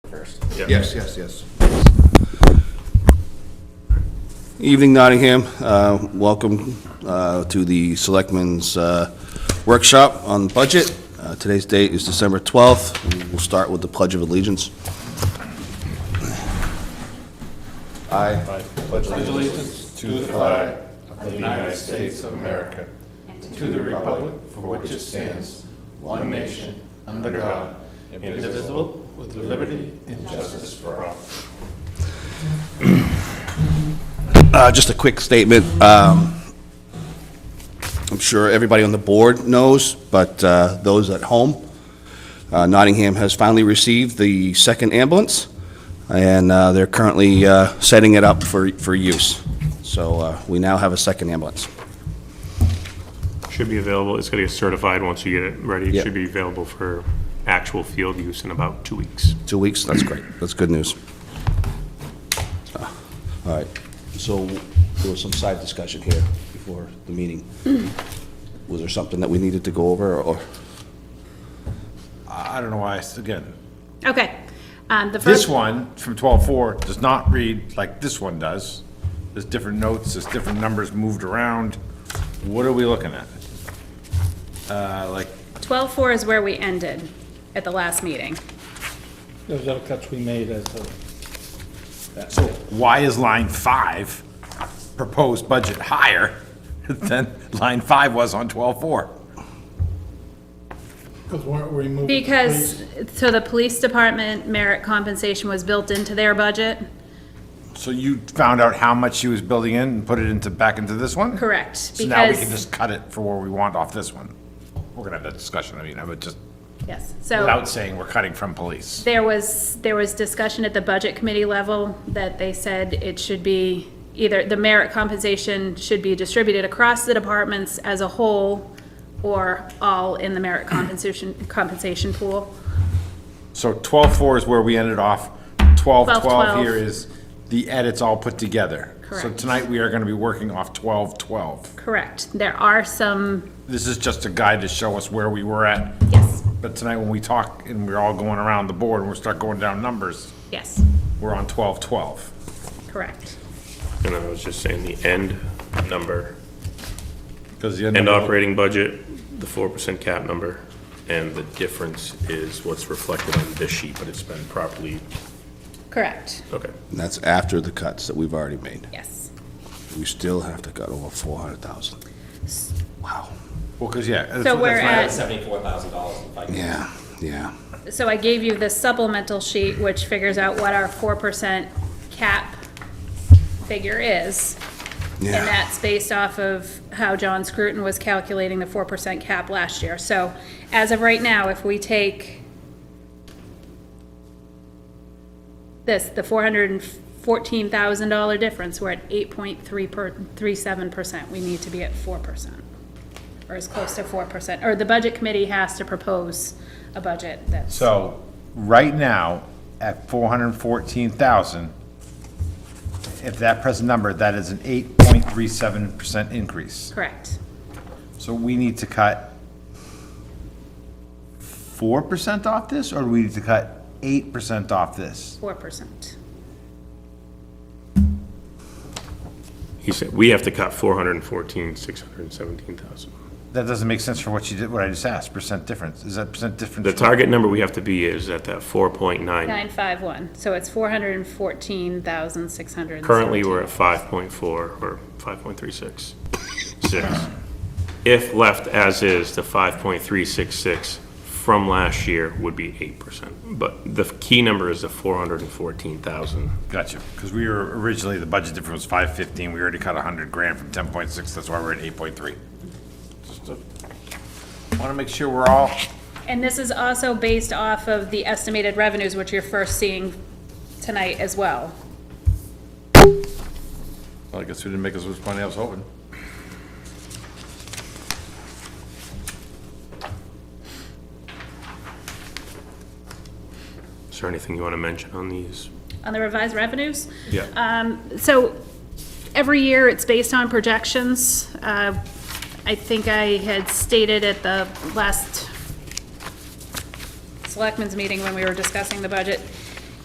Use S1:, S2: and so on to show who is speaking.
S1: first.
S2: Yes, yes, yes. Evening Nottingham, Uh, welcome uh, to the Selectmen's uh, Workshop on Budget. Uh, Today's date is December 12th. We'll start with the Pledge of Allegiance. I pledge
S3: allegiance to the flag of the United States of America and to the republic for which it stands, one nation, under God, indivisible, with liberty and justice for all.
S2: Uh, Just a quick statement. Um, I'm sure everybody on the board knows, but uh, those at home, uh, Nottingham has finally received the second ambulance, and uh, they're currently uh, setting it up for for use. So uh, we now have a second ambulance.
S4: Should be available, it's gonna get certified once you get it ready.
S2: Yeah.
S4: It should be available for actual field use in about two weeks.
S2: Two weeks, that's great. That's good news. Uh, All right, so there was some side discussion here before the meeting. Was there something that we needed to go over, or?
S3: I don't know why, it's- again,
S5: Okay. Um, the
S3: this
S5: first,
S3: one from twelve-four does not read like this one does. There's different notes, there's different numbers moved around. What are we looking at? Uh, like,
S5: twelve-four is where we ended at the last meeting.
S6: Those are cuts we made as a,
S3: So why is line five proposed budget higher than line five was on twelve-four?
S6: because weren't we moving?
S5: Because, so the police department merit compensation was built into their budget?
S3: So you found out how much she was building in and put it into, back into this one?
S5: Correct,
S3: So now we can
S5: because,
S3: just cut it for where we want off this one. We're gonna have that discussion, I mean, I would just,
S5: yes, so
S3: without saying we're cutting from police.
S5: there was, there was discussion at the budget committee level that they said it should be either, the merit compensation should be distributed across the departments as a whole or all in the merit compensation, compensation pool.
S3: So twelve-four is where we ended off, twelve-twelve
S5: 12.
S3: here is the edits all put together. So
S5: Correct.
S3: tonight we are gonna be working off twelve-twelve.
S5: Correct, there are some,
S3: This is just a guide to show us where we were at.
S5: yes,
S3: But tonight, when we talk and we're all going around the board and we start going down numbers,
S5: yes,
S3: we're on twelve twelve.
S5: correct.
S4: And I was just saying, the end number,
S3: Because
S4: end operating budget, the four percent cap number, and the difference is what's reflected on this sheet, but it's been properly,
S5: Correct,
S4: okay.
S2: And that's after the cuts that we've already made.
S5: yes.
S2: We still have to cut over four hundred thousand. Wow.
S3: Well, because, yeah. that's-
S5: So we're
S3: that's my-
S5: at-
S1: Seventy-four thousand dollars if I can.
S2: Yeah, yeah.
S5: So I gave you the supplemental sheet, which figures out what our four percent cap figure is.
S2: Yeah.
S5: And that's based off of how John Scruton was calculating the four percent cap last year. So as of right now, if we take this, the four hundred and fourteen thousand dollar difference, we're at eight point three per, three seven percent. We need to be at four percent. Or as close to four percent, or the budget committee has to propose a budget that's.
S3: So, right now, at four hundred and fourteen thousand, if that present number, that is an eight point three seven percent increase.
S5: Correct.
S3: So we need to cut four percent off this, or do we need to cut eight percent off this?
S5: Four percent.
S4: He said, we have to cut four hundred and fourteen, six hundred and seventeen thousand.
S3: That doesn't make sense for what you did, what I just asked, percent difference. Is that percent difference?
S4: The target number we have to be is at that four point nine.
S5: Nine five one, so it's four hundred and fourteen thousand six hundred.
S4: Currently, we're at five point four, or five point three six, six. If left as is, the five point three six six from last year would be eight percent. But the key number is the four hundred and fourteen thousand.
S3: Gotcha, because we were originally, the budget difference was five fifteen, we already cut a hundred grand from ten point six, that's why we're at eight point three. Want to make sure we're all,
S5: And this is also based off of the estimated revenues, which you're first seeing tonight as well.
S3: well, I guess we didn't make us which money I was hoping.
S4: Is there anything you want to mention on these?
S5: On the revised revenues,
S4: Yeah.
S5: so every year it's based on projections. Uh, I think I had stated at the last selectmen's meeting when we were discussing the budget,